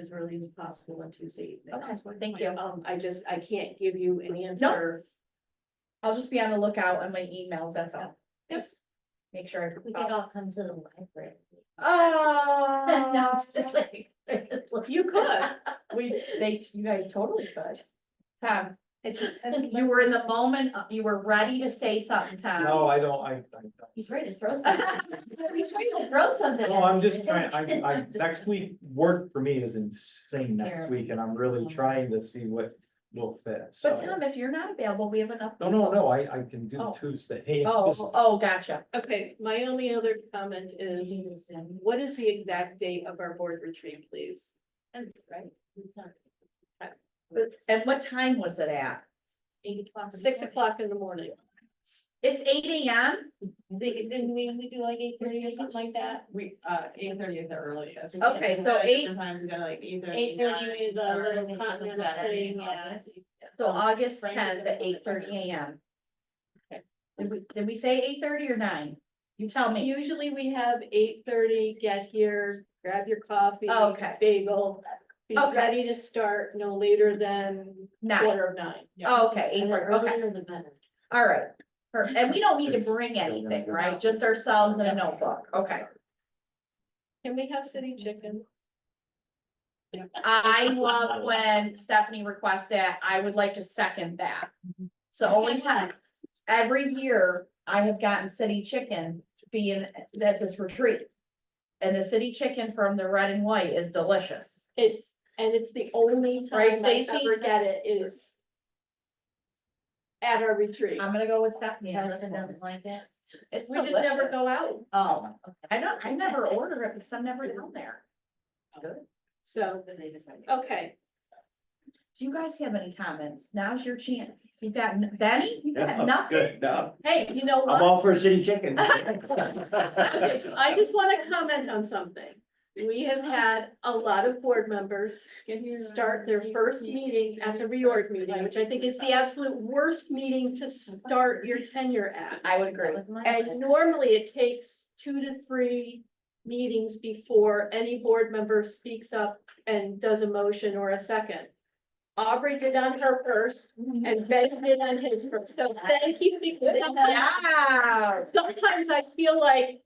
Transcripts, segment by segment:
as early as possible on Tuesday evening. Okay, thank you. Um, I just, I can't give you an answer. I'll just be on the lookout on my emails, that's all. Yep. Just make sure. We I follow- could all come to the library. No, Oh. just like- You could, We, they, you guys totally could. Tom, It's, you were in the moment, uh, you were ready to say something, Tom. No, I don't, I, I, He's ready to throw something. He's ready to throw something. no, at Oh, I'm me. just trying, I, I, next week, work for me is insane next Terrible. week, and I'm really trying to see what will fit, so. Um, But Tom, if you're not available, we have enough. No, no, no, I, I can do Oh. Tuesday. Oh, oh, gotcha. okay, my only other comment You is, do this, um, what is the exact date of our board retreat, please? and- right, we talk And what time was it at? Eight o'clock. in the Six morning. o'clock in the morning. It's eight AM? They- Didn't we, we do like eight thirty or something like that? We, uh, eight thirty is the earliest. Okay, so Sometimes eight- Sometimes we go like eight thirty. Eight thirty is a Sorry, little we did continental that in thing, yeah. August. So August Frank is tenth at available Oh, eight at 10. thirty AM. Did we, did we say eight thirty or nine? You tell me. Usually we have eight thirty, get here, grab your coffee. Oh, Okay. Bagel, be Okay. ready to start no later than Nine. quarter of nine. Oh, Okay, eight And the thirty, okay. earlier the better. All right, Per- and we don't need to It's bring still anything, gonna- right? Just ourselves and a notebook, okay. Can we have city chicken? I love when Stephanie requests that, I would like to second that. So only time, every year I have gotten city chicken being at this retreat. And the city chicken from the red and white is delicious. It's, and it's the only Right, time I Stacy? ever get it is at our retreat. I'm gonna go with Stephanie. on Husband this doesn't one. like that. It's We just never go delicious. out, Oh. I don't, I never order it because I'm never down there. It's good. so, okay. Do you guys have any comments? Now's your chance. You got, n- Benny, you got No, nothing? good, no, Hey, you know I'm what? all for city chicken. Okay, so I just wanna comment on something. We have had a lot of board members start their first meeting at the reorg meeting, which I think is the absolute worst meeting to start your tenure at. I would agree. That was my And question. normally it takes two to three meetings before any board member speaks up and does a motion or a second. Aubrey did on her first and Ben did on his first, so thank you. because- Wow. Sometimes I feel like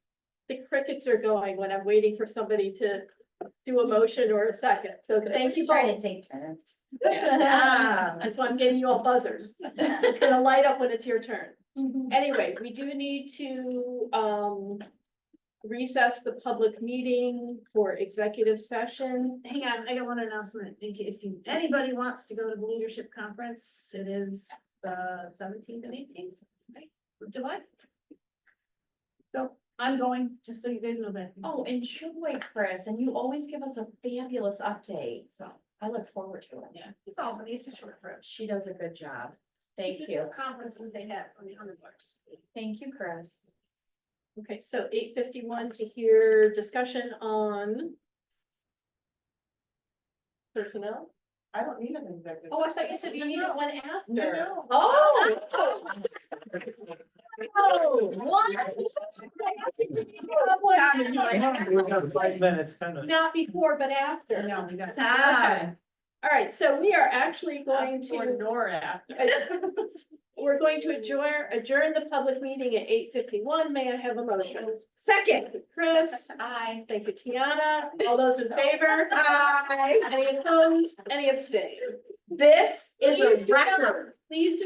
the crickets are going when I'm waiting for somebody to do a motion or a second, so thank you Try to both. take turns. Yeah. That's why I'm getting you all buzzers. It's gonna light up when it's your turn. Mm-hmm. Anyway, we do need to, um, recess the public meeting for executive session. Hang on, I got one announcement. In ca- If you, anybody wants to go to the leadership conference, it is the seventeenth and eighteenth of July. So I'm going, just so you guys know that. Oh, enjoy, Chris, and you always give us a fabulous update, so I look forward to it. Yeah, it's all, but it's a short trip. She does a good job. Thank Just you. the Conferences they have on the hundred bucks. Thank you, Chris. Okay, so eight fifty-one to hear discussion on personnel. I don't need an executive. Oh, I thought you said you needed one after. No, no. Oh. Oh. What? Tom is like, We've got Five minutes, kind of. Not before, but after. No, we don't. Tom. All right, so we are actually going Or to, nor after. we're going to adjourn, adjourn the public meeting at eight fifty-one. May I have a motion? Second. Thank you, Chris. Hi. Thank you, Tiana. All those in favor? Hi. Any opposed? Any abstained? This is Please a do not- record. Please do